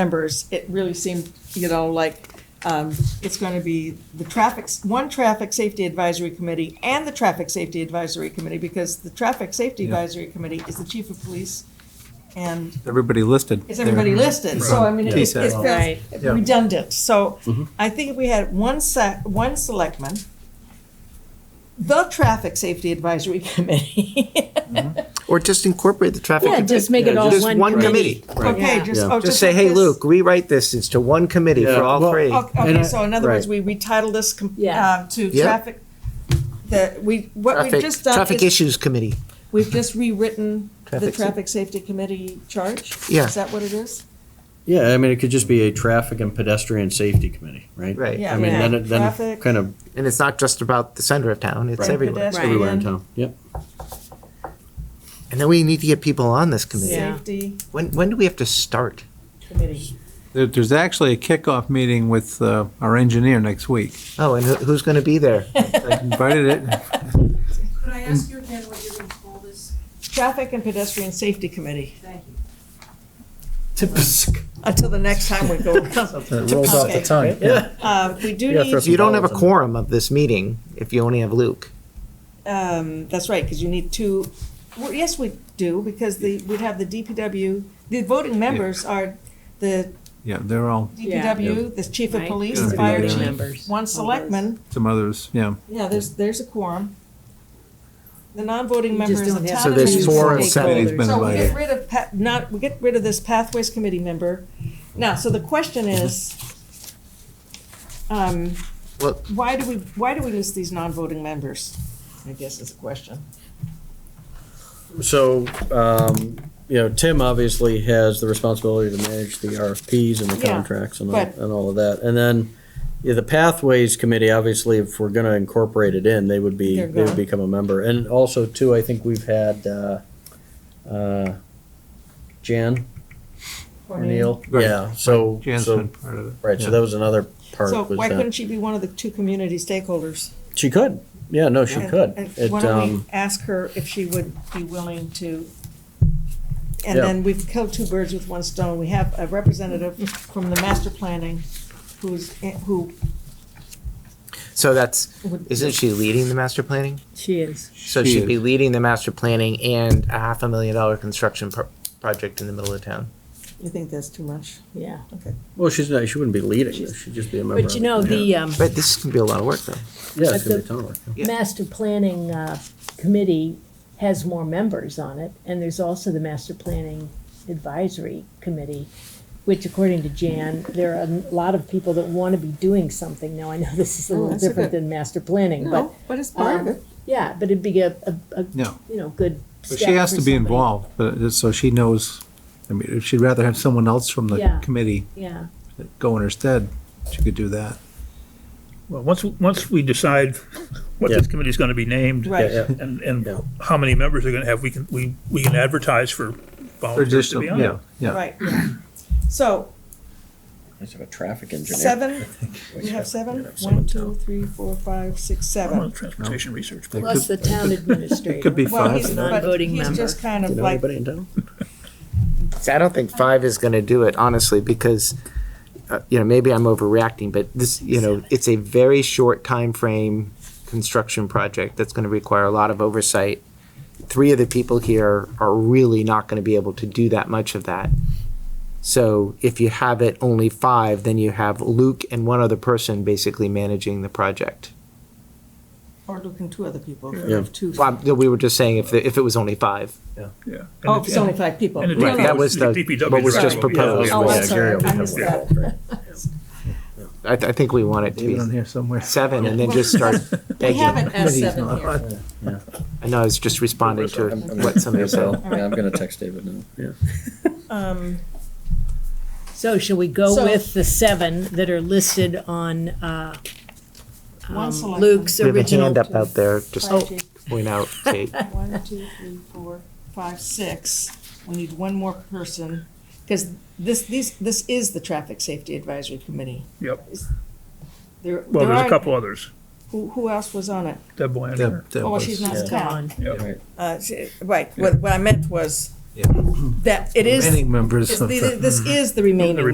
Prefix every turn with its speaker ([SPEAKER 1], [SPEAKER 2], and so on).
[SPEAKER 1] members, it really seemed, you know, like, um, it's going to be the traffic, one Traffic Safety Advisory Committee and the Traffic Safety Advisory Committee, because the Traffic Safety
[SPEAKER 2] Yeah.
[SPEAKER 1] Advisory Committee is the chief of police and
[SPEAKER 2] Everybody listed.
[SPEAKER 1] is everybody listed, so I mean, it it
[SPEAKER 2] Right.
[SPEAKER 1] feels
[SPEAKER 3] Right.
[SPEAKER 2] Yeah.
[SPEAKER 1] redundant, so
[SPEAKER 4] Mm-hmm.
[SPEAKER 1] I think if we had one sec, one selectman, the Traffic Safety Advisory Committee,
[SPEAKER 5] Or just incorporate the traffic.
[SPEAKER 3] Yeah, just make it all
[SPEAKER 5] Just
[SPEAKER 3] one committee.
[SPEAKER 1] okay,
[SPEAKER 3] Yeah.
[SPEAKER 1] just, oh,
[SPEAKER 4] Yeah.
[SPEAKER 1] just.
[SPEAKER 4] Just say,
[SPEAKER 1] like
[SPEAKER 4] hey,
[SPEAKER 1] this."
[SPEAKER 4] Luke, rewrite this, it's to one committee
[SPEAKER 5] Yeah.
[SPEAKER 4] for all
[SPEAKER 5] Well,
[SPEAKER 4] three. And
[SPEAKER 1] Okay,
[SPEAKER 6] uh,
[SPEAKER 1] okay,
[SPEAKER 4] I-
[SPEAKER 1] so in other words, we
[SPEAKER 4] Right.
[SPEAKER 1] retitle this com-
[SPEAKER 3] Yeah.
[SPEAKER 1] um, to
[SPEAKER 5] Yeah.
[SPEAKER 1] traffic, that we, what we've
[SPEAKER 5] Traffic-
[SPEAKER 1] just done
[SPEAKER 4] Traffic
[SPEAKER 1] is,
[SPEAKER 4] Issues Committee,
[SPEAKER 1] we've just rewritten the
[SPEAKER 4] Traffic sa-
[SPEAKER 1] Traffic Safety Committee charge?
[SPEAKER 5] Yeah.
[SPEAKER 1] Is that what it is?
[SPEAKER 6] Yeah, I mean, it could just be a traffic and pedestrian safety committee, right?
[SPEAKER 5] Right.
[SPEAKER 1] Yeah.
[SPEAKER 6] I mean, then, it- then
[SPEAKER 1] Traffic.
[SPEAKER 6] kind of
[SPEAKER 5] and it's not just about the center of town, it's
[SPEAKER 6] Right.
[SPEAKER 5] everywhere.
[SPEAKER 1] Pedestrian.
[SPEAKER 6] everywhere in town, yep.
[SPEAKER 5] And then we need to get people on this committee.
[SPEAKER 3] Yeah.
[SPEAKER 1] Safety
[SPEAKER 5] When, when do we have to start?
[SPEAKER 1] Committee.
[SPEAKER 2] There- There's actually a kickoff meeting with uh, our engineer next week.
[SPEAKER 5] Oh, and who- who's going to be there?
[SPEAKER 2] I Invited it.
[SPEAKER 7] Could I ask you again what you're going to call this?
[SPEAKER 1] Traffic and Pedestrian Safety Committee,
[SPEAKER 7] Thank you.
[SPEAKER 1] until the next time we go.
[SPEAKER 5] rolls
[SPEAKER 1] off the Okay.
[SPEAKER 5] tongue.
[SPEAKER 1] Uh, We do
[SPEAKER 4] Yeah, for-
[SPEAKER 1] need,
[SPEAKER 5] If you don't have a quorum of this meeting, if you only have Luke,
[SPEAKER 1] um, that's right, because you need two, well, yes, we do, because the, we'd have the DPW, the voting members are the
[SPEAKER 2] Yeah, they're all,
[SPEAKER 1] DPW, the chief of
[SPEAKER 3] Right.
[SPEAKER 1] police,
[SPEAKER 2] Yeah.
[SPEAKER 1] the fire
[SPEAKER 2] Yeah.
[SPEAKER 1] chief,
[SPEAKER 3] members.
[SPEAKER 1] one selectman,
[SPEAKER 2] some others, yeah.
[SPEAKER 1] Yeah, there's, there's a quorum. The non-voting
[SPEAKER 3] You
[SPEAKER 1] members
[SPEAKER 3] just
[SPEAKER 1] of
[SPEAKER 3] don't
[SPEAKER 1] the
[SPEAKER 3] have
[SPEAKER 1] town.
[SPEAKER 5] So there's
[SPEAKER 1] administration-
[SPEAKER 5] four and
[SPEAKER 3] stakeholders.
[SPEAKER 5] seven.
[SPEAKER 2] He's been
[SPEAKER 1] So we get
[SPEAKER 2] invited.
[SPEAKER 1] rid of, pa- not, we get rid of this pathways committee member. Now, so the question is, um,
[SPEAKER 5] Well-
[SPEAKER 1] why do we, why do we list these non-voting members? I guess is the question.
[SPEAKER 6] So, um, you know, Tim obviously has the responsibility to manage the RFPs and the
[SPEAKER 1] Yeah,
[SPEAKER 6] contracts and all,
[SPEAKER 1] but-
[SPEAKER 6] and all of that. And then, yeah, the Pathways Committee, obviously, if we're gonna incorporate it in, they would be,
[SPEAKER 1] They're
[SPEAKER 6] they
[SPEAKER 1] gone.
[SPEAKER 6] would become a member. And also, too, I think we've had, uh, uh, Jan or Neil,
[SPEAKER 2] Right.
[SPEAKER 6] yeah, so,
[SPEAKER 2] Jan's
[SPEAKER 6] so,
[SPEAKER 2] been part of it.
[SPEAKER 6] right, so
[SPEAKER 2] Yeah.
[SPEAKER 6] that was another part
[SPEAKER 1] So
[SPEAKER 6] was
[SPEAKER 1] why
[SPEAKER 6] that-
[SPEAKER 1] couldn't she be one of the two community stakeholders?
[SPEAKER 6] She could. Yeah, no, she
[SPEAKER 1] And-
[SPEAKER 6] could.
[SPEAKER 1] and
[SPEAKER 6] It,
[SPEAKER 1] Why don't we
[SPEAKER 6] um,
[SPEAKER 1] ask her if she would be willing to? And
[SPEAKER 6] Yeah.
[SPEAKER 1] then we've killed two birds with one stone. We have a representative from the master planning who's, who
[SPEAKER 5] so that's,
[SPEAKER 1] would.
[SPEAKER 5] isn't she leading the master planning?
[SPEAKER 3] She is.
[SPEAKER 5] So
[SPEAKER 2] She
[SPEAKER 5] she'd be
[SPEAKER 2] is.
[SPEAKER 5] leading the master planning and a half a million dollar construction pro- project in the middle of town.
[SPEAKER 1] You think that's too much?
[SPEAKER 3] Yeah.
[SPEAKER 6] well, she's not, she wouldn't be leading this. She'd just be a member.
[SPEAKER 3] But you know, the um,
[SPEAKER 5] But this is going to be a lot of work, though.
[SPEAKER 6] Yeah,
[SPEAKER 3] but
[SPEAKER 6] it's gonna be
[SPEAKER 3] the-
[SPEAKER 6] a ton of work.
[SPEAKER 5] Yeah.
[SPEAKER 3] master planning uh, committee has more members on it, and there's also the master planning advisory committee, which according to Jan, there are a lot of people that want to be doing something. Now, I know this is a
[SPEAKER 1] Oh,
[SPEAKER 3] little
[SPEAKER 1] that's a
[SPEAKER 3] different
[SPEAKER 1] good-
[SPEAKER 3] than master planning, but,
[SPEAKER 1] No, but it's part of
[SPEAKER 3] um,
[SPEAKER 1] it.
[SPEAKER 3] yeah, but it'd be a, a, a,
[SPEAKER 2] Yeah.
[SPEAKER 3] you know, good
[SPEAKER 2] But
[SPEAKER 3] step
[SPEAKER 2] she has
[SPEAKER 3] for
[SPEAKER 2] to be
[SPEAKER 3] somebody.
[SPEAKER 2] involved, but, it- so she knows, I mean, if she'd rather have someone else from the
[SPEAKER 3] Yeah.
[SPEAKER 2] committee
[SPEAKER 3] Yeah,
[SPEAKER 2] go in her stead, she could do that.
[SPEAKER 8] Well, once, once we decide what this committee's gonna be named.
[SPEAKER 1] Right.
[SPEAKER 6] Yeah,
[SPEAKER 8] And, and
[SPEAKER 6] Yeah.
[SPEAKER 8] how many members they're gonna have, we can, we, we can advertise for volunteers to
[SPEAKER 2] Additional-
[SPEAKER 8] be on
[SPEAKER 2] Yeah,
[SPEAKER 8] it.
[SPEAKER 2] yeah.
[SPEAKER 1] Right, yeah. So,
[SPEAKER 6] It's like a traffic engineer.
[SPEAKER 1] seven, we have seven? One, two, three, four, five, six,
[SPEAKER 8] I'm on
[SPEAKER 1] seven.
[SPEAKER 8] the transportation research.
[SPEAKER 2] It
[SPEAKER 3] plus the
[SPEAKER 2] could-
[SPEAKER 3] town administrator.
[SPEAKER 2] It could be
[SPEAKER 1] Well,
[SPEAKER 2] five.
[SPEAKER 1] he's, but
[SPEAKER 3] Non-voting
[SPEAKER 1] he's
[SPEAKER 3] member.
[SPEAKER 1] just kind
[SPEAKER 6] Do
[SPEAKER 1] of
[SPEAKER 6] you know
[SPEAKER 1] like,
[SPEAKER 6] anybody in town?
[SPEAKER 5] See, I don't think five is going to do it, honestly, because, uh, you know, maybe I'm overreacting, but this, you know, it's a very short time frame construction project that's going to require a lot of oversight. Three of the people here are really not going to be able to do that much of that. So if you have it only five, then you have Luke and one other person basically managing the project.
[SPEAKER 1] or looking two other people, if
[SPEAKER 6] Yeah.
[SPEAKER 1] you have two.
[SPEAKER 5] Well, I'm- we were just saying if, the- if it was only five.
[SPEAKER 8] Yeah. And
[SPEAKER 1] Oh,
[SPEAKER 8] the-
[SPEAKER 1] if it's only five people.
[SPEAKER 8] And the
[SPEAKER 1] No,
[SPEAKER 5] Right,
[SPEAKER 1] no,
[SPEAKER 8] DPW
[SPEAKER 5] that was the-
[SPEAKER 8] DPW
[SPEAKER 5] what was
[SPEAKER 8] driver
[SPEAKER 5] just
[SPEAKER 8] will be on it.
[SPEAKER 5] proposed.
[SPEAKER 1] Oh, I'm
[SPEAKER 6] Yeah,
[SPEAKER 1] sorry,
[SPEAKER 6] Gary would
[SPEAKER 1] I
[SPEAKER 6] have
[SPEAKER 1] missed
[SPEAKER 6] one.
[SPEAKER 1] that.
[SPEAKER 5] I, I think we want it to
[SPEAKER 2] Leave it on
[SPEAKER 5] be
[SPEAKER 2] here somewhere.
[SPEAKER 5] seven and then just start
[SPEAKER 1] We
[SPEAKER 5] begging.
[SPEAKER 1] have an S
[SPEAKER 2] Committee's
[SPEAKER 1] seven
[SPEAKER 2] not
[SPEAKER 1] here.
[SPEAKER 2] on.
[SPEAKER 5] I know, I was just responding to
[SPEAKER 6] I'm- I'm-
[SPEAKER 5] what somebody said.
[SPEAKER 6] Yeah, I'm gonna text David now, yeah.
[SPEAKER 1] Um,
[SPEAKER 3] So shall we go
[SPEAKER 1] So-
[SPEAKER 3] with the seven that are listed on uh,
[SPEAKER 1] One
[SPEAKER 3] um,
[SPEAKER 1] selectman.
[SPEAKER 3] Luke's
[SPEAKER 5] We have a
[SPEAKER 3] original? Oh.
[SPEAKER 5] hand up out there, just
[SPEAKER 1] fire
[SPEAKER 5] to
[SPEAKER 1] chief,
[SPEAKER 5] point out, Kate.
[SPEAKER 1] One, two, three, four, five, six. We need one more person, because this, these, this is the Traffic Safety Advisory Committee.
[SPEAKER 8] Yep.
[SPEAKER 1] There, there
[SPEAKER 8] Well, there's a
[SPEAKER 1] are-
[SPEAKER 8] couple others.
[SPEAKER 1] Who, who else was on it?
[SPEAKER 8] Deb
[SPEAKER 2] That-
[SPEAKER 8] Blanchard.
[SPEAKER 2] that
[SPEAKER 1] Oh,
[SPEAKER 2] was-
[SPEAKER 1] she's not
[SPEAKER 3] It's
[SPEAKER 1] town.
[SPEAKER 3] gone.
[SPEAKER 8] Yep.
[SPEAKER 1] Uh, she- Right, what, what I meant was
[SPEAKER 2] Yeah.
[SPEAKER 1] that it is,
[SPEAKER 2] Remaining members
[SPEAKER 1] it's
[SPEAKER 2] of the.
[SPEAKER 1] the- this is the remaining